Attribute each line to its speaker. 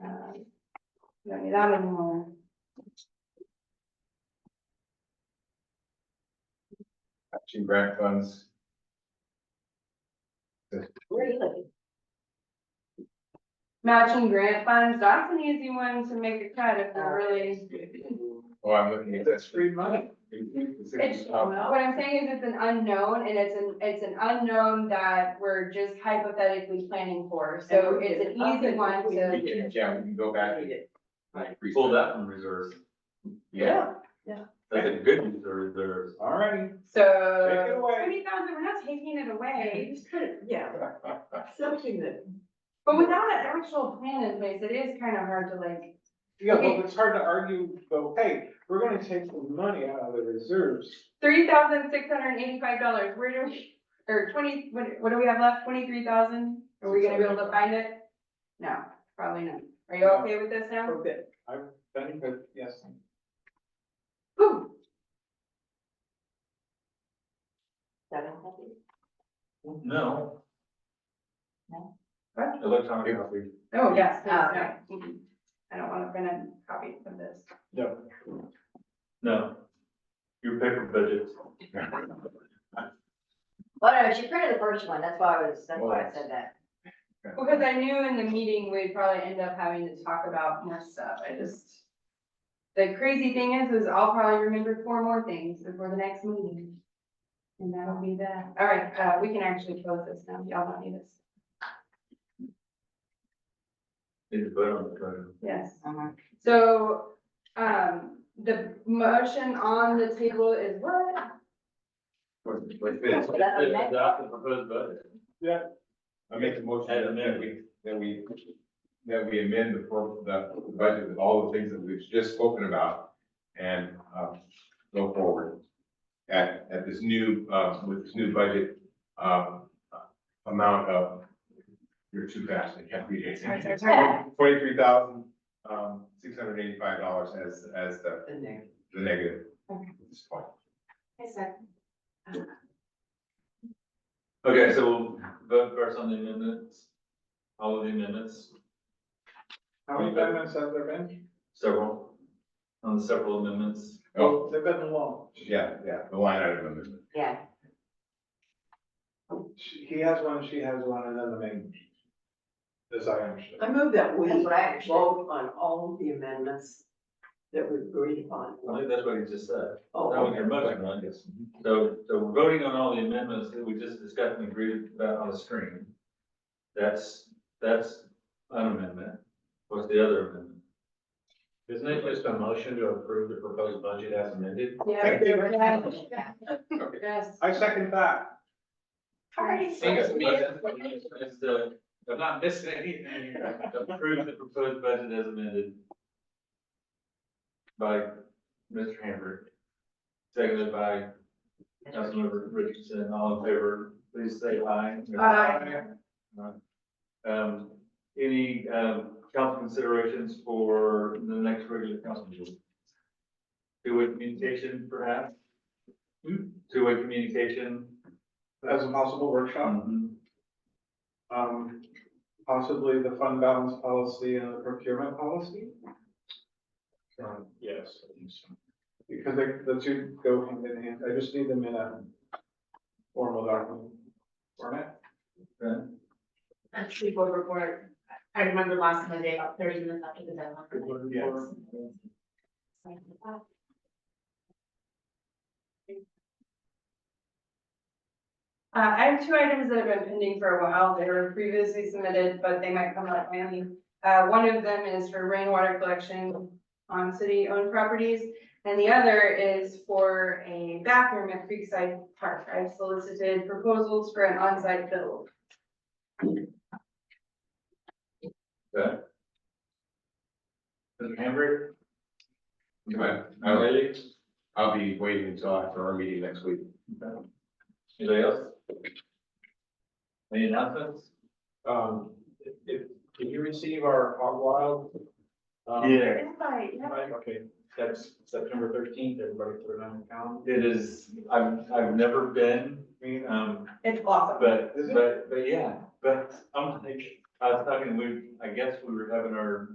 Speaker 1: No, Um, you got it wrong.
Speaker 2: Action grant funds.
Speaker 1: Where are you living? Matching grant funds, that's an easy one to make a cut if we're really.
Speaker 2: Oh, I'm looking at this.
Speaker 3: free money.
Speaker 1: It's, what I'm saying is it's an unknown and it's an, it's an unknown that we're just hypothetically planning for, so it's an easy one
Speaker 2: We
Speaker 1: to.
Speaker 2: can, yeah, we can go back and like.
Speaker 4: Pull that from reserve.
Speaker 2: Yeah,
Speaker 4: That's a good reserve, reserve.
Speaker 2: all right. Take it
Speaker 1: So,
Speaker 2: away.
Speaker 1: twenty thousand, we're not taking it away,
Speaker 3: Just put it, yeah, something that.
Speaker 1: but without an actual plan in place, it is kind of hard to like.
Speaker 5: Yeah, but it's hard to argue, though, hey, we're gonna take the money out of the reserves.
Speaker 1: Three thousand six hundred and eighty-five dollars, where do we, or twenty, what, what do we have left, twenty-three thousand? Are we gonna be able to find it? No, probably not. Are you okay with this now?
Speaker 3: Okay.
Speaker 5: I've done, but yes.
Speaker 1: Whew.
Speaker 4: No.
Speaker 3: No.
Speaker 1: What?
Speaker 4: Electronic copy.
Speaker 1: Oh, yes, please, no. Mhm. I don't wanna print a copy of this.
Speaker 5: No.
Speaker 4: No. Your paper budget.
Speaker 6: Well, Oh, no, she printed the first one, that's why I was, that's why I said that.
Speaker 1: Because I knew in the meeting, we'd probably end up having to talk about more stuff, I just. The crazy thing is, is I'll probably remember four more things before the next meeting. And that'll be that, all right, uh, we can actually close this now, y'all don't need this,
Speaker 4: Need to vote on the code.
Speaker 1: yes.
Speaker 6: Uh-huh.
Speaker 1: So, um, the motion on the table is what?
Speaker 6: That's what I meant.
Speaker 4: Adopt the proposed budget.
Speaker 2: I make a motion
Speaker 4: Add
Speaker 2: that we, that we, that we amend the, pro- the budget with all the things that we've just spoken about and, uh, go forward at, at this new, uh, with this new budget, uh, amount of, you're too fast, I can't read it.
Speaker 1: Sorry, sorry, sorry.
Speaker 2: Twenty-three thousand, um, six hundred eighty-five dollars as, as the,
Speaker 3: In there.
Speaker 2: the negative.
Speaker 1: Okay.
Speaker 2: at this point.
Speaker 4: Okay, so we'll vote first on the amendments. All of the amendments,
Speaker 5: How many amendments have there been?
Speaker 4: several. On the several amendments.
Speaker 2: Oh,
Speaker 5: Well, They've been long.
Speaker 2: yeah, yeah, the line item amendment.
Speaker 6: Yeah,
Speaker 5: She- He has one, she has one, and then the main. As I understood.
Speaker 3: I move that we
Speaker 6: That's what I understood.
Speaker 3: vote on all the amendments that we agreed upon.
Speaker 4: I think that's what he just said.
Speaker 3: Oh,
Speaker 4: That was your motion, right? So, so we're voting on all the amendments that we just discussed and agreed about on the screen. That's, that's an amendment. What's the other amendment?
Speaker 7: Isn't it just a motion to approve the proposed budget as amended?
Speaker 1: Yeah.
Speaker 5: Thank you.
Speaker 1: yeah. Yes.
Speaker 5: I second that.
Speaker 4: It's the- I'm not missing anything. here. Approve the proposed budget as amended. By Mr. Hamburg. Seconded by Councilmember Richardson, all in favor, please say aye.
Speaker 1: Aye.
Speaker 4: Um, any, um, council considerations for the next regular council meeting? Two-way communication perhaps? Two-way communication?
Speaker 5: As a possible workshop,
Speaker 4: Um,
Speaker 2: Mm.
Speaker 5: um, possibly the fund balance policy and the procurement policy,
Speaker 7: Um, Yes. I think so.
Speaker 5: because they, the two go hand in hand. I just need them in a formal document format.
Speaker 4: okay.
Speaker 8: a sleepover report. I remember last Monday, about thirty minutes after the deadline.
Speaker 5: Yes.
Speaker 1: Uh, I have two items that have been pending for a while. They were previously submitted, but they might come up mainly. Uh, one of them is for rainwater collection on city-owned properties. And the other is for a bathroom at Creekside Park. I've solicited proposals for an on-site build.
Speaker 4: Okay. Mr. Hamburg?
Speaker 2: Right.
Speaker 4: Now, Haley?
Speaker 2: I'll be waiting until after our meeting next week.
Speaker 4: Anybody else? Any announcements?
Speaker 7: Um, if, if, did you receive our hog wild? um,
Speaker 4: Yeah,
Speaker 7: invite? Okay, that's September thirteenth, everybody put it on the calendar.
Speaker 4: it is, I've, I've never been,
Speaker 5: Me and
Speaker 4: um,
Speaker 1: It's awesome.
Speaker 4: but, um,
Speaker 5: Is it?
Speaker 4: but, but yeah, but I'm like, I was talking, we, I guess we were having our